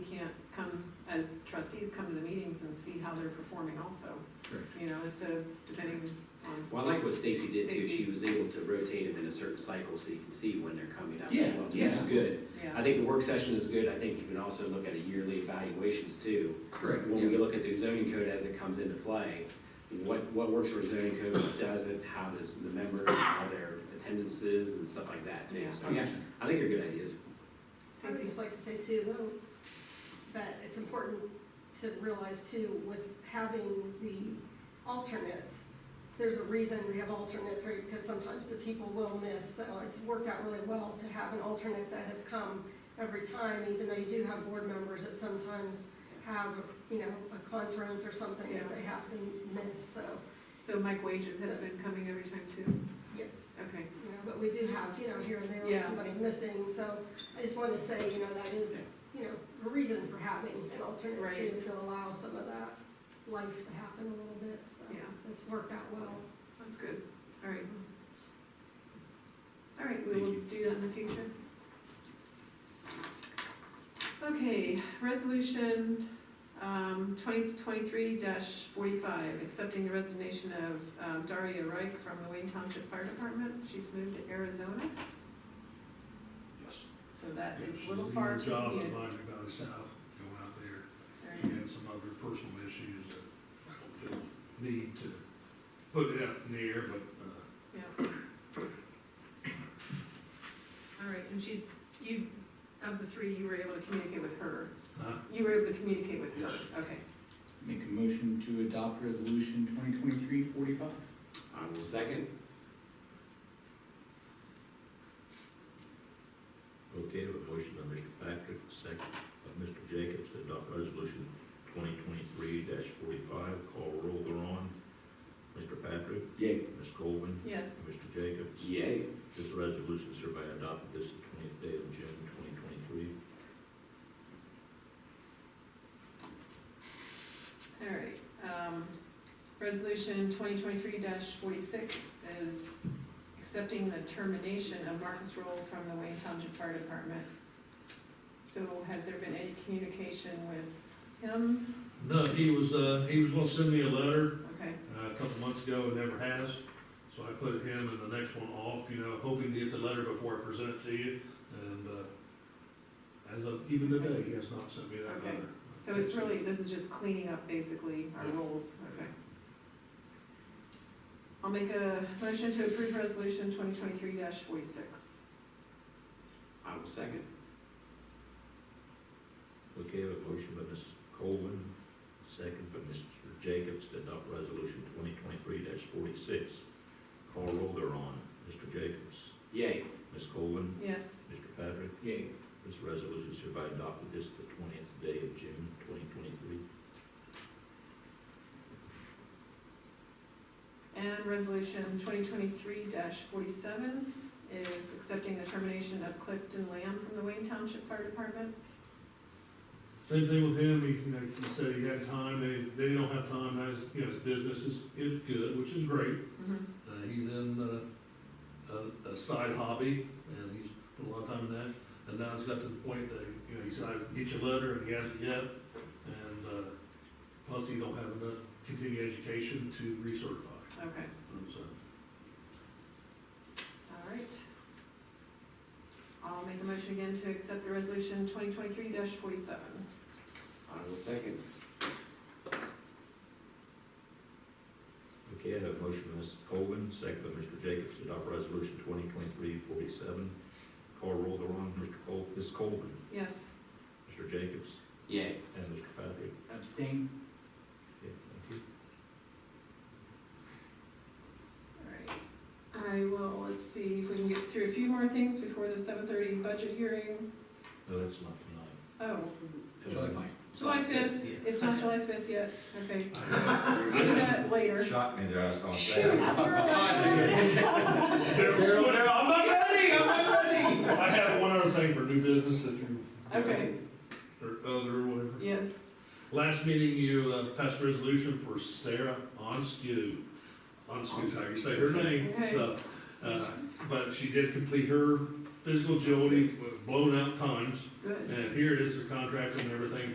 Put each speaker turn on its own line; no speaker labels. how they're performing also,
Sure.
you know, instead of depending on.
Well, I like what Stacy did too,
Stacy.
she was able to rotate them in a certain cycle so you can see when they're coming up.
Yeah,
as well, which
yeah.
is Good. I
Yeah,
think the work session is good, I think you can also look at a yearly evaluations too.
Correct,
When we look at the zoning code as it comes into play, what, what works for zoning code, what doesn't, how does the member, how their attendance is and stuff like that too.
Yeah.
So, yeah, I think they're good ideas.
I would just like to say too, though, that it's important to realize too, with having the alternates, there's a reason we have alternates, right, because sometimes the people will miss, so it's worked out really well to have an alternate that has come every time, even though you do have board members that sometimes have, you know, a conference or something that they have to miss, so,
so Mike Wages has been coming every time too,
yes.
okay.
you know, but we do have, you know, here and there,
Yeah.
somebody missing, so I just wanna say, you know, that is, you know, a reason for having an
Right.
alternative to allow some of that life to happen a little bit, so
Yeah.
it's worked out well.
That's good, all right. All right, we will do that in the future. Okay, resolution um, 2023-45, accepting the resignation of um, Daria Reich from the Wayne Township Fire Department. She's moved to Arizona,
Yes.
so that
Yeah,
is
she's
a little far
good
to
Job of
commute.
mine down south, going out there,
All right.
she had some other personal issues that I don't feel need to put it out in the air, but, uh,
Yeah. All right, and she's, you, of the three, you were able to communicate with her.
Huh?
You were able to communicate with her,
Yes.
okay.
Make a motion to adopt resolution 2023-45.
I will second.
Okay, we have a motion by Mr. Patrick, second by Mr. Jacobs to adopt resolution twenty twenty-three forty-five. Call roll thereon. Mr. Patrick,
Yay.
Ms. Colvin,
Yes.
and Mr. Jacobs.
Yay.
This resolution is hereby adopted this twentieth day of June twenty twenty-three.
All right, um, resolution twenty twenty-three forty-six is accepting the termination of Marcus Roll from the Wayne Township Fire Department. So has there been any communication with him?
No, he was, uh, he was gonna send me a letter,
Okay,
uh, a couple months ago, and never has. So I put him and the next one off, you know, hoping to get the letter before I present it to you, and, uh, as of even today, he has not sent me that
Okay.
letter.
so it's really, this is just cleaning up basically our roles, okay. I'll make a motion to approve resolution twenty twenty-three forty-six.
I will second.
Okay, we have a motion by Ms. Colvin, second by Mr. Jacobs to adopt resolution twenty twenty-three forty-six. Call roll thereon. Mr. Jacobs,
Yay.
Ms. Colvin,
Yes,
Mr. Patrick,
Yay.
This resolution is hereby adopted this the twentieth day of June, twenty twenty-three.
and resolution twenty twenty-three forty-seven is accepting the termination of Clifton Lamb from the Wayne Township Fire Department.
Same thing with him, he, you know, he said he had time, they, they don't have time, that's, you know, his business is, is good, which is great.
Mm-hmm.
Uh, he's in, uh, a, a side hobby, and he's put a lot of time in that, and now it's got to the point that, you know, he said, I'll get your letter, and he hasn't yet, and, uh, plus he don't have enough continuing education to recertify,
Okay,
so.
all right. I'll make a motion again to accept the resolution twenty twenty-three forty-seven.
I will second.
Okay, I have a motion by Ms. Colvin, second by Mr. Jacobs to adopt resolution twenty twenty-three forty-seven. Call roll the wrong, Mr. Col, Ms. Colvin,
Yes,
Mr. Jacobs,
Yay.
and Mr. Patrick.
Abstain.
Okay, thank you.
all right. I will, let's see if we can get through a few more things before the seven thirty budget hearing.
No, that's not tonight.
Oh,
July
Uh,
5.
July fifth,
Yeah.
it's not July fifth yet, okay.
You're
Do
good.
that later.
Shot me there, I was gonna
Shoot, you're right.
I'm not ready, I'm not
ready.
I have one other thing for new business, if you.
Okay,
Or other, whatever.
yes.
Last meeting, you uh, passed a resolution for Sarah Onsku. Onsku, how you say her name, so, uh, but she did complete her physical agility, with blown out times.
Good.
And here it is, her contract and everything